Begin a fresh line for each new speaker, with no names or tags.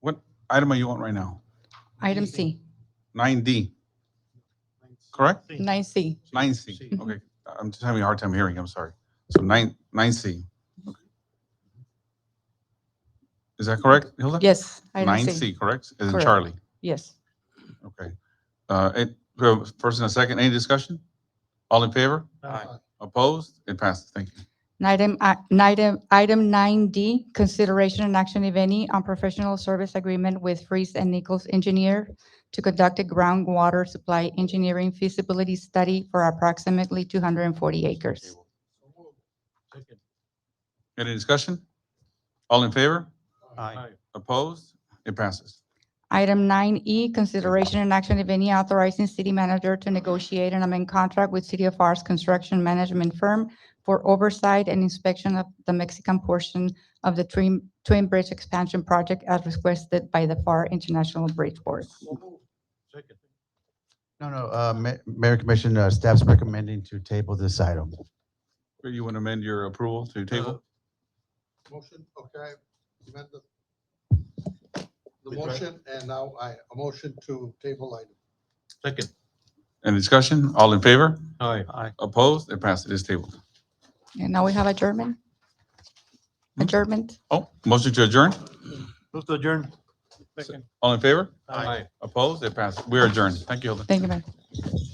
item are you on right now?
Item C,
Nine D, correct?
nine C.
Nine C, okay. I'm just having a hard time hearing, I'm sorry. So nine, nine C. Is that correct, Hilda?
Yes.
Nine
item
C, correct? As in
Correct.
Charlie,
Yes.
okay. Uh, it, uh, first and a second, any discussion? All in favor?
Aye.
Opposed? It passes, thank you.
Item, I- item, item nine D, consideration and action, if any, on professional service agreement with Freeze and Nichols Engineer to conduct a groundwater supply engineering feasibility study for approximately two hundred and forty acres.
Any discussion? All in favor?
Aye.
Opposed? It passes.
Item nine E, consideration and action, if any, authorizing city manager to negotiate an amendment contract with City of R's construction management firm for oversight and inspection of the Mexican portion of the Twin, Twin Bridge Expansion Project as requested by the FAR International Bridge Board.
No, no, uh, Ma- Mayor Commission, uh, staff's recommending to table this item.
Where You want to amend your approval to table?
Motion, okay, amend the, the motion, and now I, a motion to table item.
Second.
Any discussion? All in favor?
Aye. Aye.
Opposed? It passes. It is tabled.
And now we have adjournment?
Hmm?
Adjournment?
Oh, motion to adjourn?
Move to adjourn.
All in favor?
Aye.
Opposed? It passes. We are adjourned. Thank you, Hilda.
Thank you, Mayor.